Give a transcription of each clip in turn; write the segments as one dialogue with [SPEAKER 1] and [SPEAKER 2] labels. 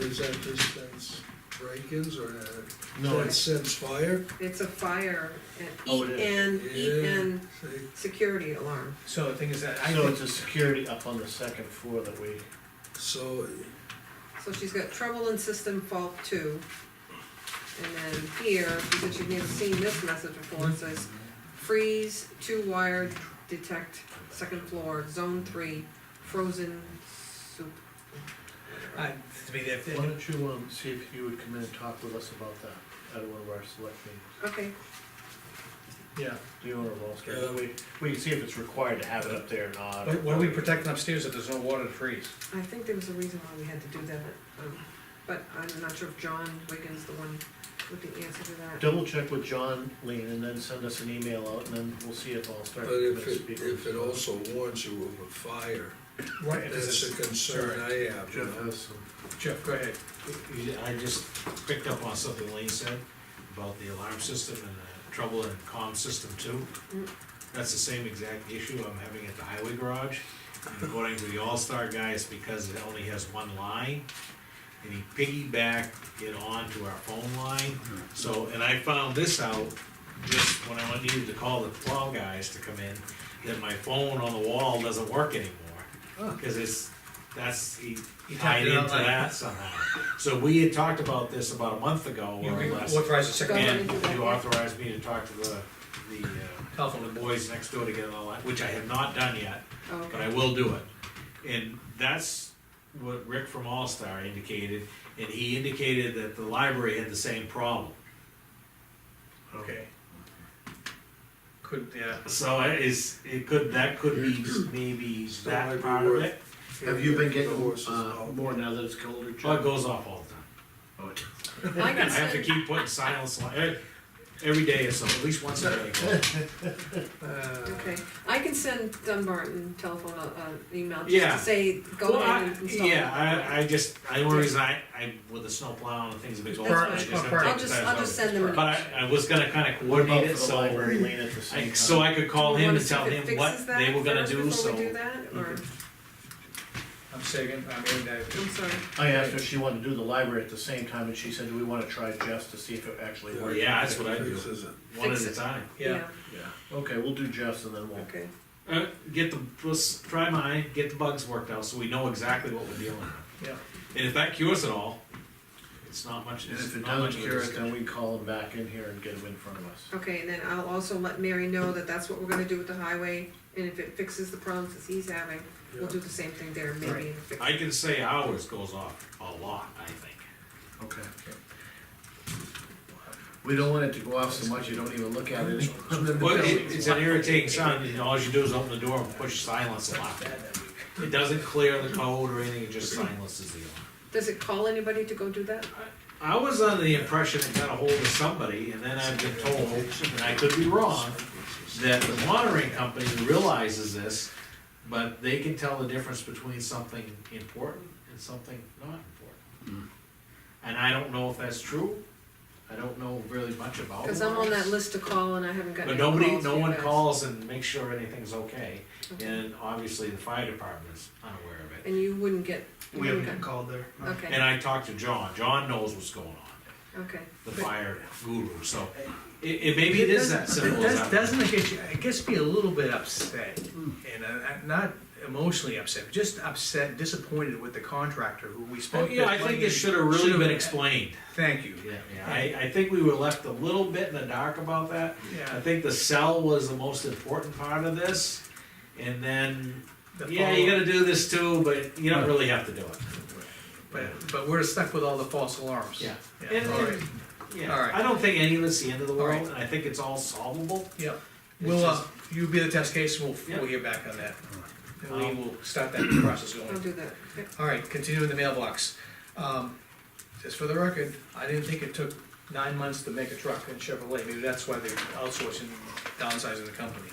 [SPEAKER 1] is that just, that's break-ins or that-
[SPEAKER 2] No,
[SPEAKER 1] that
[SPEAKER 2] it's,
[SPEAKER 1] sends fire?
[SPEAKER 3] It's a fire, an
[SPEAKER 4] Oh, it
[SPEAKER 3] E N, E N
[SPEAKER 1] Yeah, see?
[SPEAKER 3] security alarm.
[SPEAKER 4] So the thing is that I
[SPEAKER 2] so
[SPEAKER 4] think,
[SPEAKER 2] it's a security up on the second floor that we,
[SPEAKER 1] So,
[SPEAKER 3] So she's got trouble in system fault two. And then here, because you've never seen this message before, it says freeze, two wire, detect, second floor, zone three, frozen soup.
[SPEAKER 4] I, to me, if,
[SPEAKER 2] why don't you, um, see if you would come in and talk with us about that at one of our select meetings?
[SPEAKER 3] Okay,
[SPEAKER 2] Yeah. Do you wanna roll straight,
[SPEAKER 1] Yeah.
[SPEAKER 2] we, we can see if it's required to have it up there or not.
[SPEAKER 5] What, what are we protecting upstairs if there's no water to freeze?
[SPEAKER 3] I think there was a reason why we had to do that, um, but I'm not sure if John Wigan's the one with the answer to that.
[SPEAKER 2] Double check with John, Lean, and then send us an email out, and then we'll see if I'll start.
[SPEAKER 1] but if
[SPEAKER 2] committing
[SPEAKER 1] it,
[SPEAKER 2] speakers.
[SPEAKER 1] if it also warns you of a fire,
[SPEAKER 5] Right.
[SPEAKER 1] that's a concern I have, you
[SPEAKER 2] Jeff
[SPEAKER 1] know?
[SPEAKER 2] has some,
[SPEAKER 5] Jeff, go ahead.
[SPEAKER 6] You- I just picked up on something Lane said about the alarm system and the trouble in comm system two.
[SPEAKER 3] Mm.
[SPEAKER 6] That's the same exact issue I'm having at the highway garage. And According to the All-Star guys, because it only has one line, and he piggybacked it onto our phone line.
[SPEAKER 5] Mm-hmm.
[SPEAKER 6] So, and I found this out just when I went- needed to call the plow guys to come in, that my phone on the wall doesn't work anymore. Cause it's, that's, he
[SPEAKER 5] He tapped
[SPEAKER 6] tied
[SPEAKER 5] it
[SPEAKER 6] into
[SPEAKER 5] out like-
[SPEAKER 6] that somehow. So we had talked about this about a month ago
[SPEAKER 5] You
[SPEAKER 6] or
[SPEAKER 5] can
[SPEAKER 6] less.
[SPEAKER 5] authorize the second
[SPEAKER 6] And you authorized me to talk to the, the, uh,
[SPEAKER 5] telephone.
[SPEAKER 6] the boys next door to get it all that, which I have not done yet,
[SPEAKER 3] Oh,
[SPEAKER 6] but
[SPEAKER 3] Okay,
[SPEAKER 6] I will do it. And that's what Rick from All Star indicated, and he indicated that the library had the same problem.
[SPEAKER 4] okay,
[SPEAKER 5] Could, yeah.
[SPEAKER 6] So it is, it could, that could be maybe
[SPEAKER 1] So might
[SPEAKER 6] that
[SPEAKER 1] be
[SPEAKER 6] part of
[SPEAKER 1] worth-
[SPEAKER 6] it,
[SPEAKER 2] have you been
[SPEAKER 1] The
[SPEAKER 2] getting,
[SPEAKER 1] horses
[SPEAKER 2] uh,
[SPEAKER 1] out.
[SPEAKER 2] more now that it's colder, Jeff?
[SPEAKER 6] well, it goes off all the time.
[SPEAKER 2] Oh, it-
[SPEAKER 3] I
[SPEAKER 6] I
[SPEAKER 3] can
[SPEAKER 6] have to
[SPEAKER 3] send,
[SPEAKER 6] keep putting silence on, eh, every day or so, at least once a day. it goes.
[SPEAKER 1] Uh,
[SPEAKER 3] okay, I can send Dunbarton telephone, uh, uh, an email just
[SPEAKER 6] Yeah.
[SPEAKER 3] to say, go
[SPEAKER 6] Well,
[SPEAKER 3] ahead
[SPEAKER 6] I-
[SPEAKER 3] and install. it.
[SPEAKER 6] Yeah, I, I just, I, the only reason I, I, with the snow plow and things have been going. on, I
[SPEAKER 3] That's
[SPEAKER 5] fine.
[SPEAKER 6] just haven't
[SPEAKER 3] I'll
[SPEAKER 6] taken
[SPEAKER 3] just,
[SPEAKER 6] time
[SPEAKER 3] I'll
[SPEAKER 6] out.
[SPEAKER 3] just send them.
[SPEAKER 6] But I, I was gonna kinda
[SPEAKER 2] What about
[SPEAKER 6] coordinate
[SPEAKER 2] for
[SPEAKER 6] it,
[SPEAKER 2] the
[SPEAKER 6] so,
[SPEAKER 2] library, Lean, at the
[SPEAKER 6] I,
[SPEAKER 2] same
[SPEAKER 6] so
[SPEAKER 2] time?
[SPEAKER 6] I could call him and tell him what they were gonna do, so.
[SPEAKER 3] Do that, or,
[SPEAKER 5] I'm saying, I mean, that,
[SPEAKER 3] I'm sorry,
[SPEAKER 2] I asked her if she wanted to do the library at the same time, and she said, do we wanna try Jeff's to see if it actually works?
[SPEAKER 6] Yeah, that's what I do,
[SPEAKER 1] This isn't,
[SPEAKER 6] one at
[SPEAKER 3] Fix
[SPEAKER 6] a
[SPEAKER 3] it.
[SPEAKER 6] time.
[SPEAKER 5] yeah.
[SPEAKER 3] yeah,
[SPEAKER 2] Okay, we'll do Jeff's and then we'll,
[SPEAKER 3] okay,
[SPEAKER 6] Uh, get the, let's try mine, get the bugs worked out, so we know exactly what we're dealing with.
[SPEAKER 5] Yeah.
[SPEAKER 6] And if that cures it all, it's not much,
[SPEAKER 2] and if
[SPEAKER 6] it's
[SPEAKER 2] it
[SPEAKER 6] not much
[SPEAKER 2] doesn't
[SPEAKER 6] of a
[SPEAKER 2] cure it,
[SPEAKER 6] discussion.
[SPEAKER 2] then we call him back in here and get him in front of us.
[SPEAKER 3] okay, and then I'll also let Mary know that that's what we're gonna do with the highway, and if it fixes the problems that he's having, we'll do the same thing there, maybe. and fix-
[SPEAKER 6] I can say ours goes off a lot, I think.
[SPEAKER 2] Okay. We don't want it to go off so much you don't even look at it.
[SPEAKER 6] Well, it, it's an irritating sound, and all you do is open the door and push silence a lot. It doesn't clear the code or anything, it just silences the alarm.
[SPEAKER 3] Does it call anybody to go do that?
[SPEAKER 6] I was under the impression it got a hold of somebody, and then I've been told, and I could be wrong, that the monitoring company realizes this, but they can tell the difference between something important and something not important. And I don't know if that's true, I don't know really much about
[SPEAKER 3] Cause I'm on that
[SPEAKER 6] alarms.
[SPEAKER 3] list to call and I haven't gotten
[SPEAKER 6] But
[SPEAKER 3] any
[SPEAKER 6] nobody,
[SPEAKER 3] calls
[SPEAKER 6] no
[SPEAKER 3] from you
[SPEAKER 6] one
[SPEAKER 3] guys.
[SPEAKER 6] calls and makes sure everything's okay,
[SPEAKER 3] Okay.
[SPEAKER 6] and obviously the fire department is unaware of it.
[SPEAKER 3] And you wouldn't get, you
[SPEAKER 4] we
[SPEAKER 3] wouldn't
[SPEAKER 4] haven't been
[SPEAKER 3] get,
[SPEAKER 4] called there. no.
[SPEAKER 3] okay,
[SPEAKER 6] And I talked to John, John knows what's going on,
[SPEAKER 3] okay,
[SPEAKER 6] the fire guru, so it, it, maybe it is that simple as that.
[SPEAKER 4] Does- Doesn't it get you, it gets me a little bit upset, and uh, not emotionally upset, but just upset, disappointed with the contractor who we
[SPEAKER 6] Oh,
[SPEAKER 4] spent.
[SPEAKER 6] yeah, I think it should have really
[SPEAKER 4] should've-
[SPEAKER 6] been explained.
[SPEAKER 4] Thank you.
[SPEAKER 6] Yeah, yeah, I, I think we were left a little bit in the dark about that. I
[SPEAKER 4] Yeah,
[SPEAKER 6] think the cell was the most important part of this, and then,
[SPEAKER 4] the
[SPEAKER 6] yeah,
[SPEAKER 4] follow-
[SPEAKER 6] you gotta do this too, but you don't really have to do it.
[SPEAKER 4] But, but we're stuck with all the false alarms.
[SPEAKER 6] Yeah.
[SPEAKER 4] Yeah,
[SPEAKER 6] And-
[SPEAKER 4] all right, All
[SPEAKER 6] Yeah,
[SPEAKER 4] right.
[SPEAKER 6] I don't think any of it's the end of the
[SPEAKER 4] All right.
[SPEAKER 6] world, and I think it's all solvable.
[SPEAKER 4] yeah.
[SPEAKER 6] It's
[SPEAKER 4] We'll, uh,
[SPEAKER 6] just-
[SPEAKER 4] you be the test case, we'll,
[SPEAKER 6] Yeah.
[SPEAKER 4] we'll hear back on that. And
[SPEAKER 6] Um,
[SPEAKER 4] we will start that process going.
[SPEAKER 3] I'll do that, Yep.
[SPEAKER 4] All right, continuing the mailbox. Um, Just for the record, I didn't think it took nine months to make a truck in Chevrolet, maybe that's why they're outsourcing, downsizing the company.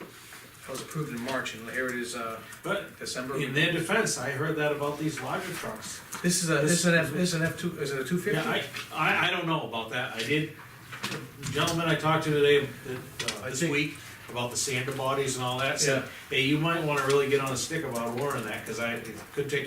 [SPEAKER 4] That was approved in March, and here it is, uh,
[SPEAKER 6] But
[SPEAKER 4] December.
[SPEAKER 6] in their defense, I heard that about these larger trucks.
[SPEAKER 4] This is a, this is an F, this is an F two, is it a two fifty?
[SPEAKER 6] Yeah, I, I, I don't know about that, I did, the gentleman I talked to today, that, uh,
[SPEAKER 2] I
[SPEAKER 6] this
[SPEAKER 2] think-
[SPEAKER 6] week, about the sander bodies and all that, said, hey, you might wanna really get on a stick about ordering that, cause I, it could take